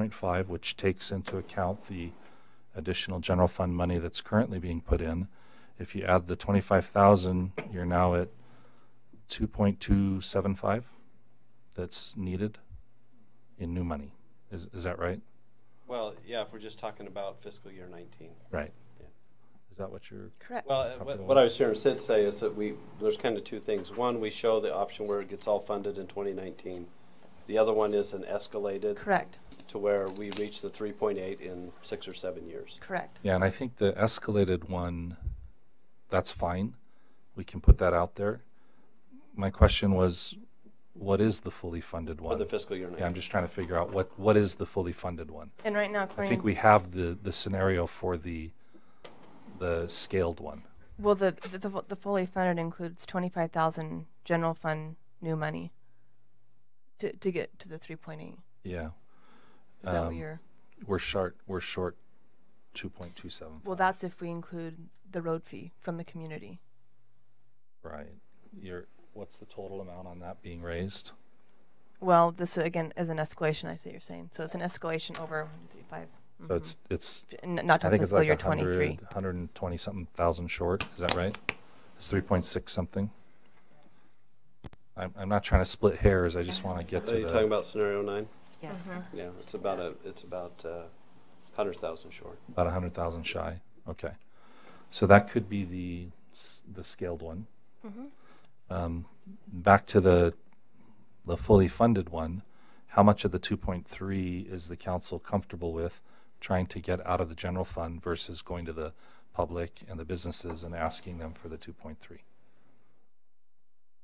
1.5, which takes into account the additional general fund money that's currently being put in. If you add the 25,000, you're now at 2.275 that's needed in new money. Is, is that right? Well, yeah, if we're just talking about fiscal year 19. Right. Yeah. Is that what you're? Correct. Well, uh, what, what I was hearing Sid say is that we, there's kind of two things. One, we show the option where it gets all funded in 2019. The other one is an escalated Correct, to where we reach the 3.8 in six or seven years. correct. Yeah, and I think the escalated one, that's fine. We can put that out there. My question was, what is the fully funded For the one? fiscal year 19. Yeah, I'm just trying to figure out what, what is the fully funded one? And right now, I according, think we have the, the scenario for the, the scaled one. well, the, the- the fu- the fully funded includes twenty-five thousand general fund new money to to get to the three point eight. Yeah, Is that what Um, you're? we're short, we're short 2.27. Well, that's if we include the road fee from the community. Right. You're, what's the total amount on that being raised? Well, this again is an escalation. I see what you're saying. So it's an escalation over one, two, three, five. mm-hmm. So it's, it's, N- Not I talking think it's fiscal like year 100, twenty-three. 120 something thousand short. Is that right? It's 3.6 something. I'm, I'm not trying to split hairs. I just want to get Are to you talking the, about scenario nine? Yes. Yeah, it's about a, it's about uh, 100,000 short. about 100,000 shy. Okay. So that could be the, s- the scaled one. Um, back to the, the fully funded one, how much of the 2.3 is the council comfortable with trying to get out of the general fund versus going to the public and the businesses and asking them for the 2.3? You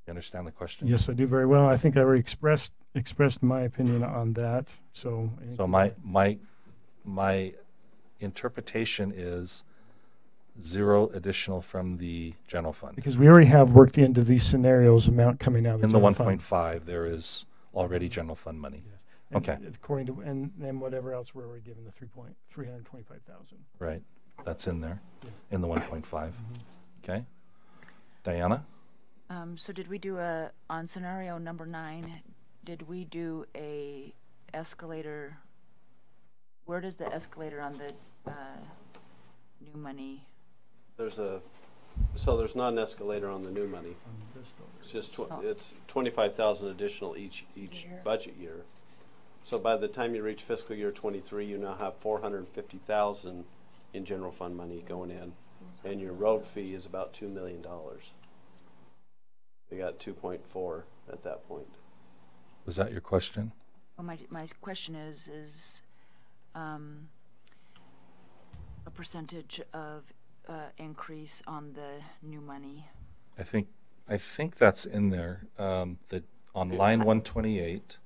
understand the question? Yes, I do very well. I think I already expressed expressed my opinion on that. So, I think- So my, my, my interpretation is zero additional from the general fund. because we already have worked into these scenarios amount coming out of In the general one fund. point five, there is already general fund money, Yes. And okay. According to and then whatever else we're already given the three point three hundred twenty five thousand. right? That's in there, Yeah. in the one point five, Mm-hmm. okay? Diana, Um, so did we do a, on scenario number nine, did we do a escalator? Where does the escalator on the, uh, new money? There's a, so there's not an escalator on the new money. It's just, tw- Oh. it's twenty-five thousand additional each, each Year. budget year. So by the time you reach fiscal year twenty-three, you now have four hundred and fifty thousand in general fund money going in, and your road fee is about two million dollars. You got two point four at that point. was that your question? Well, oh, my, my s- question is, is, um, a percentage of, uh, increase on the new money? I think, I think that's in there, um, that on line one twenty-eight,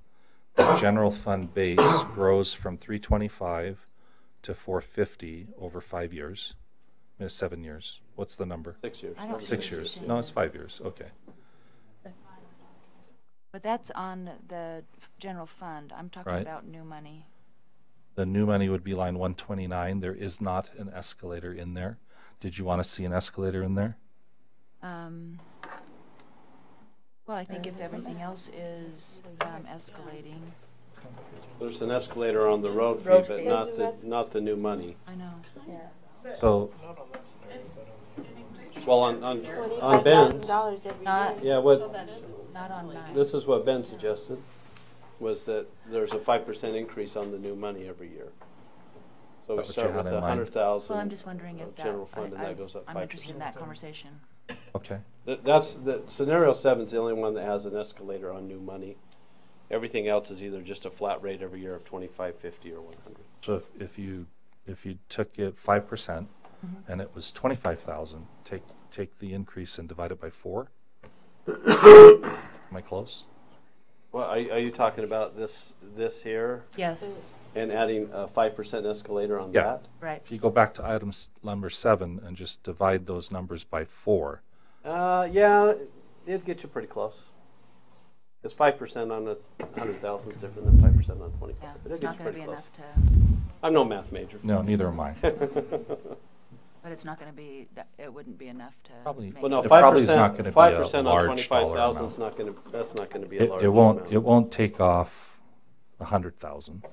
the general fund base grows from three twenty-five to four fifty over five years, Uh, seven years. What's the number? Six years. I don't Six Six years. years. No, it's five years, okay. But that's on the f- general fund. I'm talking Right. about new money. The new money would be line one twenty-nine. There is not an escalator in there. Did you want to see an escalator in there? Um, well, I think if everything else is, um, escalating, There's an escalator on the road fee, Road but fee. not the, not the new money. I know. So, Well, on, on, on Ben's, dollars every Not, yeah, what, not on nine. This is what Ben suggested, was that there's a five percent increase on the new money every year. So we Is that what you start had with in a mind? hundred Well, I'm thousand. just wondering if that, uh, General fund, and I, that goes up I'm five interested in that conversation. okay, That, that's, the scenario seven's the only one that has an escalator on new money. Everything else is either just a flat rate every year of twenty-five, fifty, or one hundred. so if, if you, if you took it five percent Mhm. and it was twenty-five thousand, take, take the increase and divide it by four? Am I close? Well, are, are you talking about this, this here, Yes, and adding a five percent escalator on Yeah. that? right. If you go back to item s- number seven and just divide those numbers by four, Uh, yeah, it'd get you pretty close. Cause five percent on a hundred thousand is different than five percent on twenty-five. Yeah, It'll get it's you not gonna pretty be close. enough to, I'm no math major. no, neither am I. but it's not gonna be, that, it wouldn't be enough to. Probably- make Well, no, it. It five probably is not gonna be percent, a five percent on large twenty-five dollar thousand amount. is not gonna, that's not gonna be a It, large it won't, amount. it won't take off a hundred thousand.